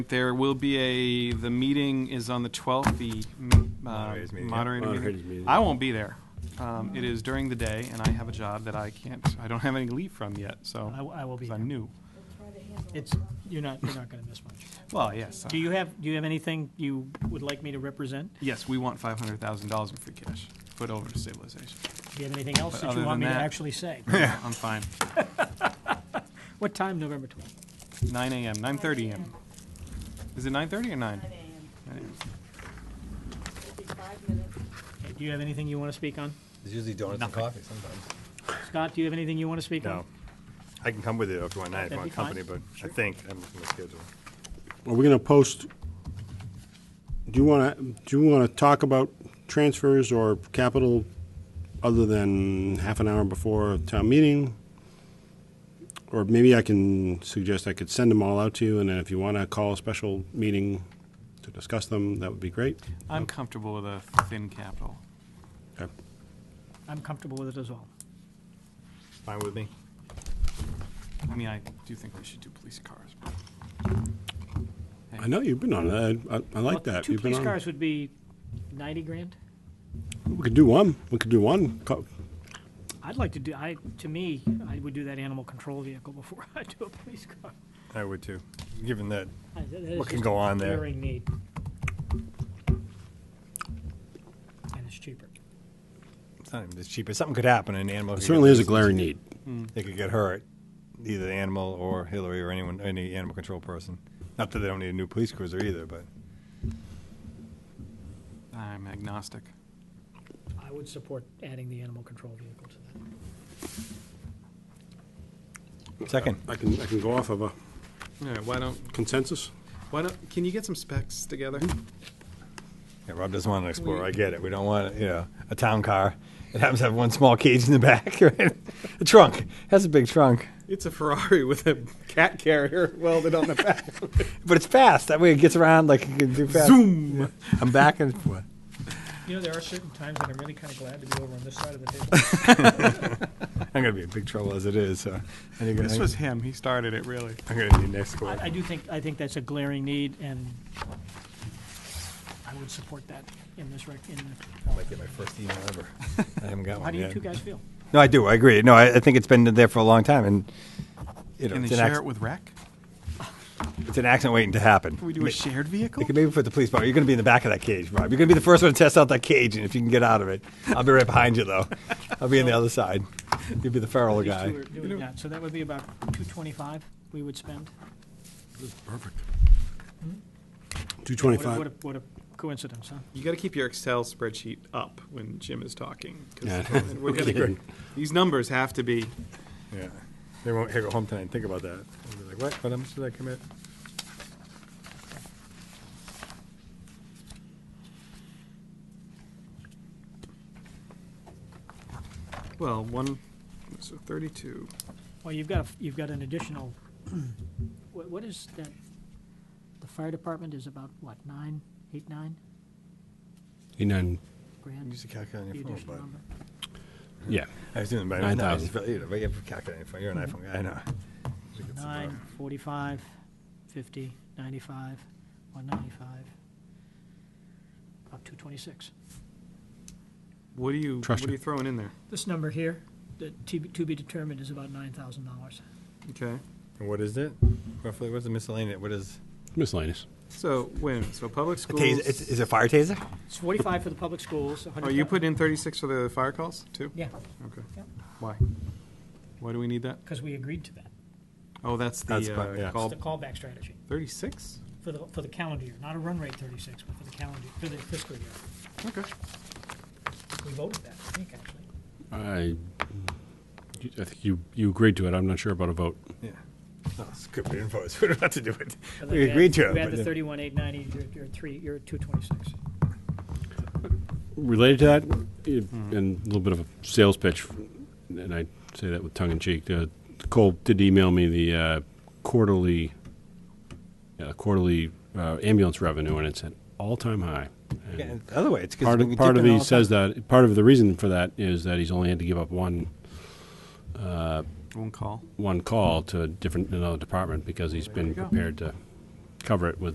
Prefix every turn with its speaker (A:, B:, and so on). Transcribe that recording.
A: There will be a, the meeting is on the 12th, the mm,
B: Moderator's
A: uh,
B: meeting.
A: moderator
C: Moderator's
A: meeting.
C: meeting.
A: I won't be there. Um, It is during the day, and I have a job that I can't, I don't have any leave from yet, so.
D: I w- I will be
A: Because
D: there.
A: I'm new.
D: It's, you're not, you're not going to miss much.
A: Well, yes. uh,
D: Do you have, do you have anything you would like me to represent?
A: Yes, we want $500,000 in free cash, put over to stabilization.
D: Do you have anything else
A: But
D: that
A: other
D: you want me
A: than
D: to
A: that-
D: actually say?
A: I'm fine.
D: What time, November 12th?
A: 9 AM, 9:30 AM. Is it 9:30 or 9?
D: Okay, Do you have anything you want to speak on?
B: There's usually donuts and coffee sometimes.
D: Scott, do you have anything you want to speak on?
B: No. I can come with you if you want, I
D: That'd
B: want
D: be fine.
B: company, but I think I'm looking at my schedule.
C: Are we going to post, do you want to, do you want to talk about transfers or capital other than half an hour before town meeting? Or maybe I can suggest I could send them all out to you, and then if you want to call a special meeting to discuss them, that would be great.
A: I'm comfortable with a thin capital.
C: Okay.
D: I'm comfortable with it as well.
B: Fine with me?
A: I mean, I do think we should do police cars. but-
C: I know you've been on that. I, I like
D: Well,
C: that.
D: Two
C: You've been
D: police
C: on-
D: cars would be 90 grand?
C: We could do one. We could do one. Co-
D: I'd like to do, I, to me, I would do that animal control vehicle before I do a police car.
B: I would too, given that,
D: I- that is
B: What can
D: just
B: go on there?
D: glaring need. And it's cheaper.
B: it's not even as cheap, but something could happen, an animal.
C: It
B: could
C: certainly
B: get
C: is a
B: loose.
C: glaring need.
B: They could get hurt, either the animal or Hillary or anyone, any animal control person. Not that they don't need a new police cruiser either, but
A: I'm agnostic.
D: I would support adding the animal control vehicle to that.
B: second.
C: I can, I can go off of a
A: All right, why don't,
C: consensus.
A: why don't, can you get some specs together?
B: Yeah, Rob doesn't want an Explorer. I get it. We don't want, you know, a town car. It happens to have one small cage in the back, right? A trunk. It has a big trunk,
A: It's a Ferrari with a cat carrier welded on the back.
B: but it's fast. That way it gets around like it can do fast. Zoom. I'm back and forth.
D: You know, there are certain times that I'm really kind of glad to be over on this side of the table.
B: I'm gonna be in big trouble as it is. So I think
A: This was him, he started it, really.
B: I'm gonna need next
D: I, I
B: Explorer.
D: do think, I think that's a glaring need, and I would support that in this rec, in
B: I
D: the,
B: might get my first email ever. I haven't got one
D: how do you
B: yet.
D: two guys feel?
B: No, I do. I agree. No, I, I think it's been there for a long time, and you know,
A: Can they
B: it's an,
A: share it
B: acc-
A: with rec?
B: it's an accident waiting to happen.
A: Can we do a shared vehicle?
B: They could maybe put the police bar. You're going to be in the back of that cage, Rob. You're going to be the first one to test out that cage, and if you can get out of it, I'll be right behind you, though. I'll be on the other side. You'll be the feral
D: These
B: guy.
D: two are doing that, so that would be about two twenty-five we would spend.
C: Perfect.
D: What a- What
C: Two
D: a,
C: twenty-five.
D: what a coincidence, huh?
A: You gotta keep your Excel spreadsheet up when Jim is talking. 'cause
C: Yeah.
A: we're gonna-
C: Okay.
A: These numbers have to be,
B: Yeah. They won't go home tonight and think about that. They'll be like, what? What much did I commit?
A: well, one, so 32.
D: Well, you've got, a- you've got an additional, what, what is that? The fire department is about, what, nine, eight, nine
C: Eight, nine,
D: grand?
B: Use the calculator on
D: The
B: your phone,
D: additional
B: bud.
D: number?
C: yeah.
B: I was doing it by
C: Nine
B: no, I
C: thousand.
B: just- You know, but you have a calculator on your phone. You're an iPhone guy. I know. Just get some, uh,
D: Mm-hmm. Nine, forty-five, fifty, ninety-five, one ninety-five, about two twenty-six.
A: What are you,
C: Trust
A: what are you
C: you.
A: throwing in there?
D: This number here, the to be, to be determined is about nine thousand dollars.
A: Okay,
B: And what is it? Roughly, what's the miscellaneous? What is?
C: Miscellaneous.
A: so, wait a minute, so public
B: A
A: schools.
B: taser. It's, is it a fire taser?
D: It's forty-five for the public schools,
A: Oh, you put in 36 for the fire calls, too?
D: Yeah,
A: Okay.
D: Yep.
A: Why? Why do we need that?
D: because we agreed to that.
A: Oh, that's
B: That's
A: the
B: fine, yeah.
A: uh,
D: It's
A: call,
D: the callback strategy
A: 36?
D: for the, for the calendar year, not a run rate thirty-six, but for the calendar, for the fiscal year.
A: Okay.
D: We voted that, I think, actually.
C: I, I think you, you agreed to it. I'm not sure about a vote.
B: Yeah. Oh, it's good. We didn't vote. We don't have to do it.
D: But
B: We
D: like you
B: agreed
D: had-
B: to it.
D: You had
B: but
D: the
B: then-
D: thirty-one, eight ninety, you're, you're three, you're two twenty-six.
C: Related to that, i- and a little bit of a sales pitch, and I say that with tongue in cheek. Uh, Cole did email me the uh, quarterly uh, quarterly uh, ambulance revenue, and it's at all time high. And
B: Yeah, and the other way, it's 'cause
C: part
B: we
C: of,
B: dip
C: part of
B: in
C: he
B: all the
C: says
B: time.
C: that part of the reason for that is that he's only had to give up one
A: One call.
C: one call to a different another department because he's been prepared to cover it with